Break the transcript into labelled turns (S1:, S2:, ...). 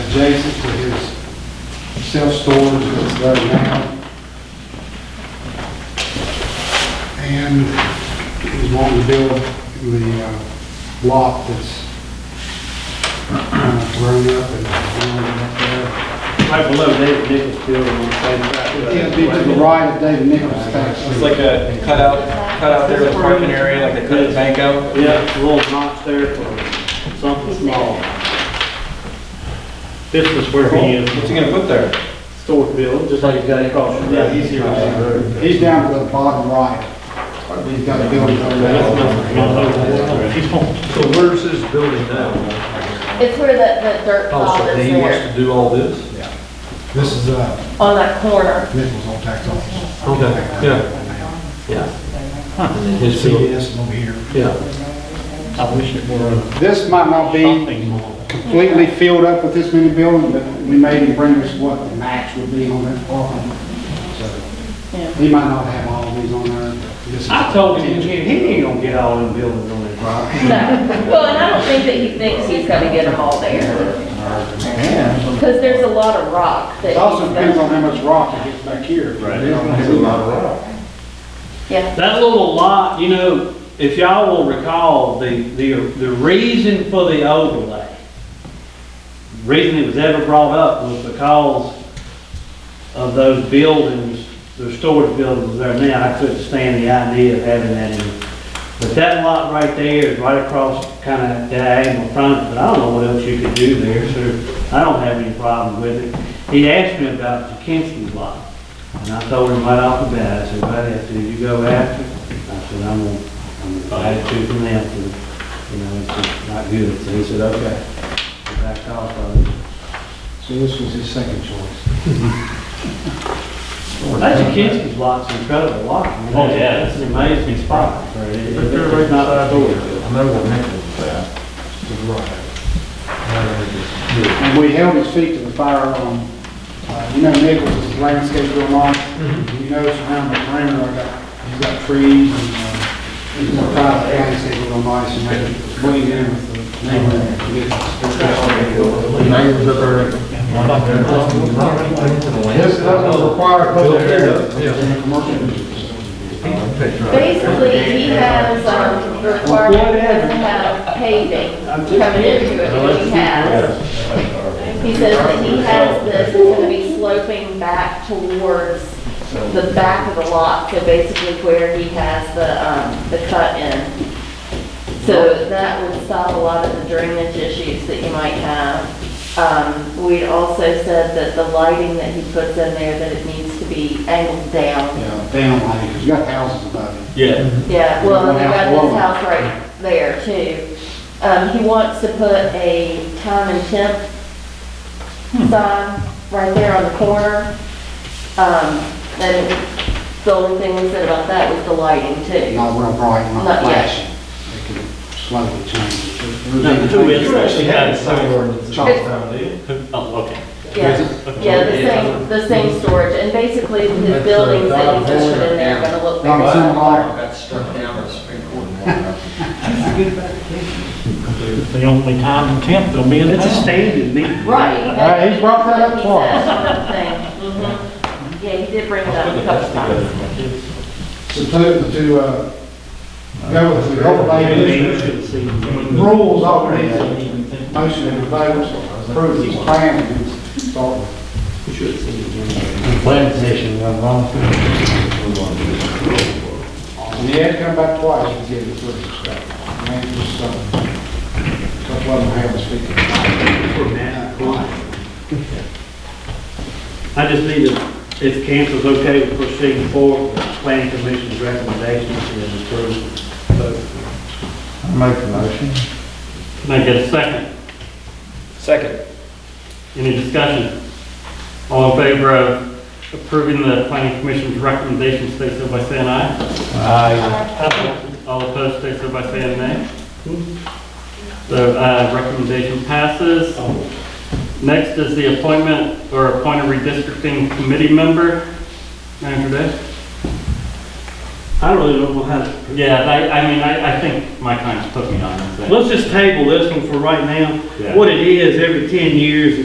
S1: adjacent to his self-storage that's there now. And he's wanting to build the uh, lot that's kind of grown up and grown up there.
S2: Right below David Nichols building on the same track.
S1: It'd be to the right of David Nichols' tax.
S3: It's like a cutout, cutout there with the parking area, like they cut the bank out.
S2: Yeah, a little notch there for something small. This is where he
S3: What's he
S2: is,
S3: gonna put there?
S2: storage building, just like he's got across from that. He's here.
S1: He's down to the bottom right. He's got a building over there.
S4: So where's his building now?
S5: It's where that, that dirt
S4: Oh,
S5: pile
S4: so
S5: is
S4: he wants
S5: there,
S4: to do all this?
S1: This is uh,
S5: on that corner.
S1: Nichols' old tax office.
S4: Okay, yeah, yeah. And then his building,
S1: is over here.
S4: yeah.
S2: I wish it were
S1: This might not be
S2: something more.
S1: completely filled up with this many buildings, but we made him bring us what the max would be on that parking.
S5: Yeah.
S1: So He might not have all these on there, but this is.
S2: I told him, he ain't gonna get all them buildings on his property.
S5: No. Well, and I don't think that he thinks he's gonna get them all there, because there's a lot of rock that
S1: It also
S5: he's
S1: depends on
S5: gonna.
S1: how much rock it gets back here.
S2: Right.
S5: Yeah,
S2: That little lot, you know, if y'all will recall, the, the, the reason for the overlay, reason it was ever brought up was because of those buildings, the storage buildings there now, I couldn't stand the idea of having that in. But that lot right there is right across kind of diagonal from it, but I don't know what else you could do there, so I don't have any problem with it. He asked me about the Kinsley lot. And I told him right off the bat, I said, buddy, I said, you go after, it?" I said, I'm gonna, I'm gonna buy it two from them, for, you know, it's just not good. So he said, okay. He Backed off of it.
S1: So this was his second choice.
S2: That's a Kinsman's lot's an incredible lot. Oh, yeah. It's an amazing spot. It's not a door.
S4: I know what Nichols that.
S1: And we held his feet to the fire on, uh, you know, Nichols is landscape real nice. You know, around the perimeter, I got, he's got trees and, uh, he's got private landscape real nice and they blend in with the neighborhood.
S4: Neighbors up there.
S1: This doesn't require a public hearing.
S4: Yeah, yeah.
S1: It's in a commercial district.
S5: basically, he has, um, the requirement he has to have paving coming into it, which he has. He says that he has this, it's gonna be sloping back towards the back of the lot, so basically where he has the, um, the cut in. So that would stop a lot of the drainage issues that you might have. Um, we also said that the lighting that he puts in there, that it needs to be angled down.
S1: Yeah, down like, because you got houses above it.
S2: Yeah.
S5: Yeah, well, they got
S1: One
S5: this
S1: house
S5: house right there too. Um, he wants to put a time and temp
S1: Hmm.
S5: sign right there on the corner. Um, and the only thing we said about that was the lighting too.
S1: Not real bright, not
S5: Not yet.
S1: flashing. They could slowly change it.
S2: No, the two is actually had
S1: Charles
S2: Oh, okay.
S5: Yeah, yeah, the same, the same storage, and basically the buildings that you just put in there are gonna look
S1: Not
S5: very
S1: some
S5: similar.
S1: light.
S3: That's struck down by the Supreme Court.
S6: The only time in Kent they'll be in
S2: It's a
S6: town.
S2: standard meeting.
S5: Right.
S1: Alright, he's brought that up twice.
S5: twice. Mm-hmm. Yeah, he did bring it up a couple times.
S1: So to, to, uh, go with the overlay district rules already, motion and vote, approve these plans and start with.
S2: Planning commission, I'm wrong.
S1: And he had come back twice and gave the first step. And then just, uh, a couple of them had to speak.
S2: I just need to, if council's okay with proceeding forward, with the planning commission's recommendations and approval.
S4: Make the motion.
S2: Can I get a second?
S3: Second.
S2: Any discussion? All in favor of approving the planning commission's recommendations, state so by saying aye. Aye. All opposed, state so by saying nay. So, uh, recommendation passes. Next is the appointment or appoint a redistricting committee member. Manager Day? I really don't know how to.
S7: Yeah, I, I mean, I, I think my clients put me on this thing.
S2: Let's just table this one for right now.
S7: Yeah.
S2: What it is, every ten years,